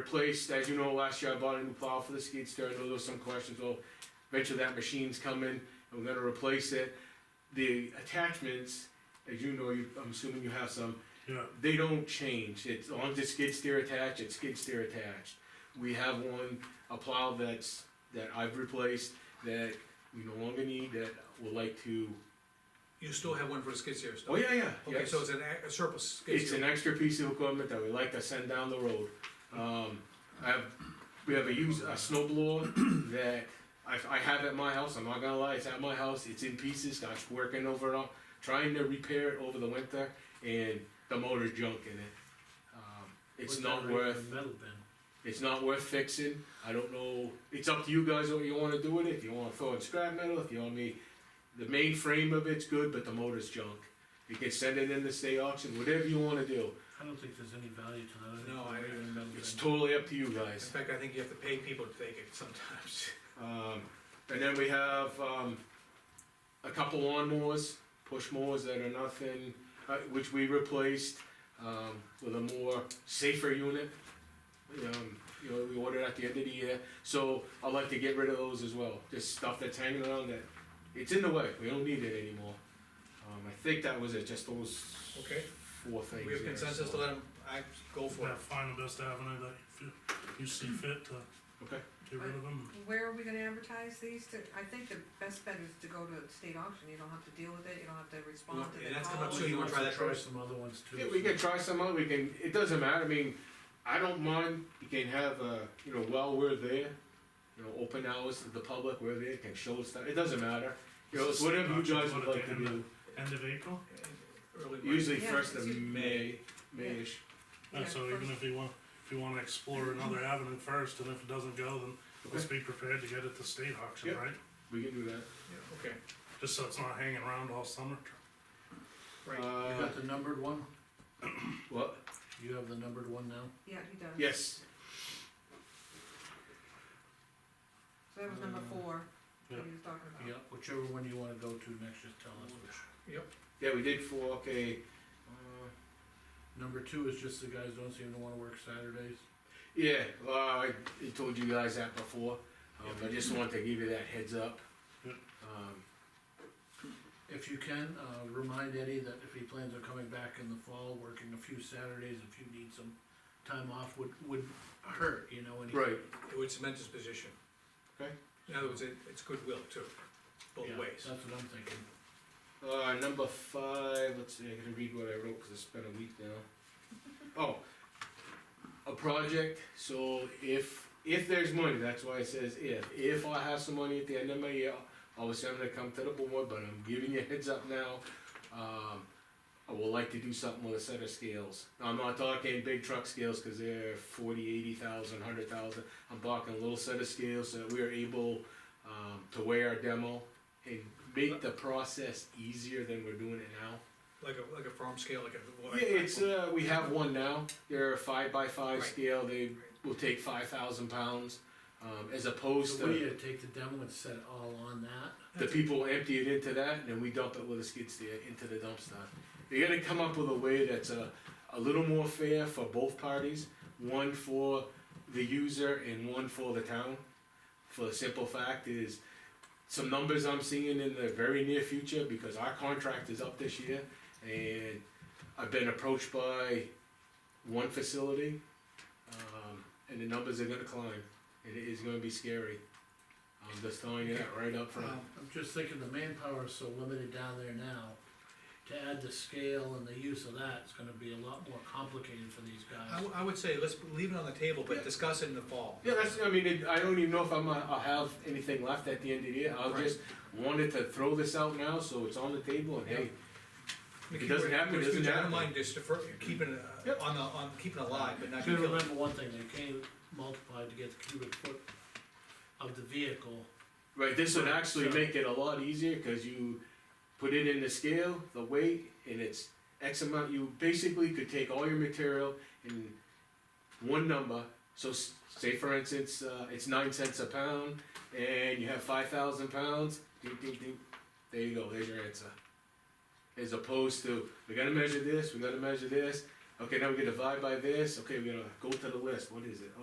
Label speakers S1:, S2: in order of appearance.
S1: replaced, as you know, last year I bought a new plow for the skid steer, I know there was some questions, well, eventually that machine's coming, and we're gonna replace it. The attachments, as you know, you, I'm assuming you have some,
S2: Yeah,
S1: they don't change, it's, as long as it's skid steer attached, it's skid steer attached. We have one, a plow that's, that I've replaced, that we no longer need, that would like to,
S3: You still have one for the skid steer
S1: oh,
S3: still?
S1: yeah, yeah,
S3: Okay,
S1: yes.
S3: so it's an a- a surplus skid
S1: It's an
S3: steer?
S1: extra piece of equipment that we like to send down the road. Um, I have, we have a used, a snow blower that I, I have at my house, I'm not gonna lie, it's at my house, it's in pieces, I was working over it all, trying to repair it over the winter, and the motor's junk in it. Um, It's
S2: Put
S1: not
S2: that right in
S1: worth,
S2: the Metal bin.
S1: it's not worth fixing, I don't know, it's up to you guys what you wanna do with it, if you wanna throw in scrap metal, if you want me, the main frame of it's good, but the motor's junk. You can send it in the state auction, whatever you wanna do.
S2: I don't think there's any value to that. I think
S3: No,
S2: it's
S3: I-
S2: right in the metal
S1: It's
S2: bin.
S1: totally up to you
S3: In
S1: guys.
S3: fact, I think you have to pay people to take it sometimes.
S1: Um, and then we have, um, a couple lawnmowers, push mowers that are nothing, uh, which we replaced, um, with a more safer unit. Um, you know, we ordered at the end of the year, so I'd like to get rid of those as well, just stuff that's hanging around that, it's in the way, we don't need it anymore. Um, I think that was it, just those
S3: Okay,
S1: four things.
S3: we have
S1: there,
S3: consensus
S1: so-
S3: to let him, I, go for it.
S2: That find the best avenue that you feel- you see fit to
S1: Okay,
S2: get rid of them.
S4: Where are we gonna advertise these? To- I think the best bet is to go to state auction, you don't have to deal with it, you don't have to respond to
S3: Yeah,
S4: the
S3: that's come up
S4: call.
S3: soon.
S5: Oh,
S3: you wanna try that
S2: Try
S3: first?
S2: some other ones too.
S1: Yeah, we can try some out, we can, it doesn't matter, I mean, I don't mind, you can have, uh, you know, while we're there, you know, open hours to the public, we're there, can show stuff, it doesn't matter. You know, it's whatever you guys would like to do,
S2: End of April?
S3: Early March.
S1: usually
S4: Yeah,
S1: first of
S4: it's usually-
S1: May, Mayish.
S2: Yeah,
S4: Yeah,
S5: Oh,
S2: so even
S4: first.
S2: if you want, if you wanna explore another avenue first, and if it doesn't go, then let's be prepared to get it to state auction,
S1: Yep.
S2: right?
S1: we can do that.
S3: Yeah, Okay,
S2: Just so it's not hanging around all summer.
S3: right,
S5: You
S1: Uh,
S5: got the numbered one?
S1: what,
S5: You have the numbered one now?
S4: Yeah, he does.
S1: yes,
S4: So that was number four, that
S2: Yeah.
S4: he was talking about.
S5: Yeah, whichever one you wanna go to next, just tell us which.
S1: yeah, we did four, okay, uh,
S5: Number two is just the guys don't seem to wanna work Saturdays.
S1: yeah, uh, I I told you guys that before, um, I just wanted to give you that heads up.
S2: Yep.
S1: Um,
S5: If you can, uh, remind Eddie that if he plans on coming back in the fall, working a few Saturdays, if you need some time off, would, would hurt, you know, and he-
S1: right,
S3: it would cement his position.
S1: Okay.
S3: In other words, it, it's goodwill too, both
S5: Yeah,
S3: ways.
S5: That's what I'm thinking.
S1: Uh, number five, let's see, I gotta read what I wrote, cause it's been a week now. Oh, a project, so if, if there's money, that's why it says if, if I have some money at the end of my year, obviously I'm gonna come to the board, but I'm giving you a heads up now. Um, I would like to do something with a set of scales, I'm not talking big truck scales, cause they're forty, eighty thousand, hundred thousand, I'm talking a little set of scales so that we're able, um, to weigh our demo and make the process easier than we're doing it now.
S3: Like a, like a farm scale, like a.
S1: Yeah, it's, uh, we have one now, they're a five by five
S3: Right.
S1: scale, they will take five thousand pounds, um, as opposed
S5: So
S1: to
S5: we need to take the demo and set it all on that.
S1: the people empty it into that, and then we dump it with a skid steer into the dumpster. You gotta come up with a way that's a, a little more fair for both parties, one for the user and one for the town. For the simple fact is, some numbers I'm seeing in the very near future, because our contract is up this year, and I've been approached by one facility, um, and the numbers are gonna climb, and it is gonna be scary. I'm just telling you that right up front.
S5: Um, I'm just thinking the manpower is so limited down there now, to add the scale and the use of that, it's gonna be a lot more complicated for these
S3: I,
S5: guys.
S3: w- I would say, let's leave it on the table,
S1: Yeah.
S3: but discuss it in the fall.
S1: Yeah, that's, I mean, it, I don't even know if I'm, uh, I'll have anything left at the end of the year, I
S3: Right.
S1: just wanted to throw this out now, so it's on the table, and hey,
S3: We
S1: If it
S3: keep-
S1: doesn't happen, it
S3: we- we
S1: doesn't
S3: don't
S1: happen.
S3: mind just defer, keeping it, uh,
S1: Yep.
S3: on the, on, keeping it alive, but not
S5: You
S3: kill
S5: gotta
S3: it.
S5: remember one thing, they can't multiply to get the cubic foot of the vehicle.
S1: right, this would
S5: Right,
S1: actually
S5: so-
S1: make it a lot easier, cause you put it in the scale, the weight, and it's X amount, you basically could take all your material in one number, so s- say for instance, uh, it's nine cents a pound, and you have five thousand pounds, doo, doo, doo. there you go, there's your answer. As opposed to, we gotta measure this, we gotta measure this, okay, now we gotta divide by this, okay, we gotta go to the list, what is it?